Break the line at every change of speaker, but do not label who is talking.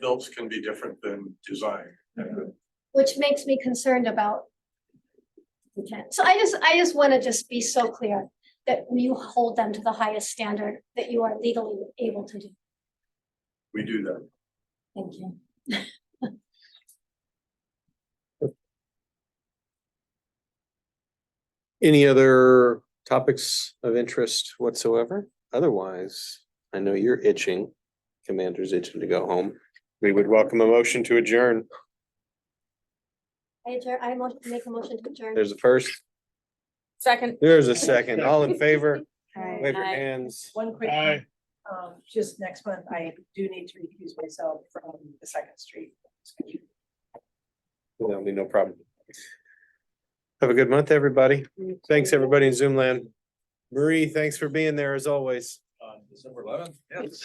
builds can be different than design.
which makes me concerned about. intent. So I just, I just wanna just be so clear that you hold them to the highest standard that you are legally able to do.
We do that.
Thank you.
Any other topics of interest whatsoever? Otherwise, I know you're itching. Commander's itching to go home. We would welcome a motion to adjourn.
I adjourn, I mo- make a motion to adjourn.
There's a first,
Second.
there's a second. All in favor? Wave your
Aye.
hands.
One quick,
Aye.
um, just next month, I do need to recuse myself from the Second Street.
That'll be no problem. Have a good month, everybody. Thanks, everybody in Zoom land. Marie, thanks for being there as always.
uh, December eleventh? Yes.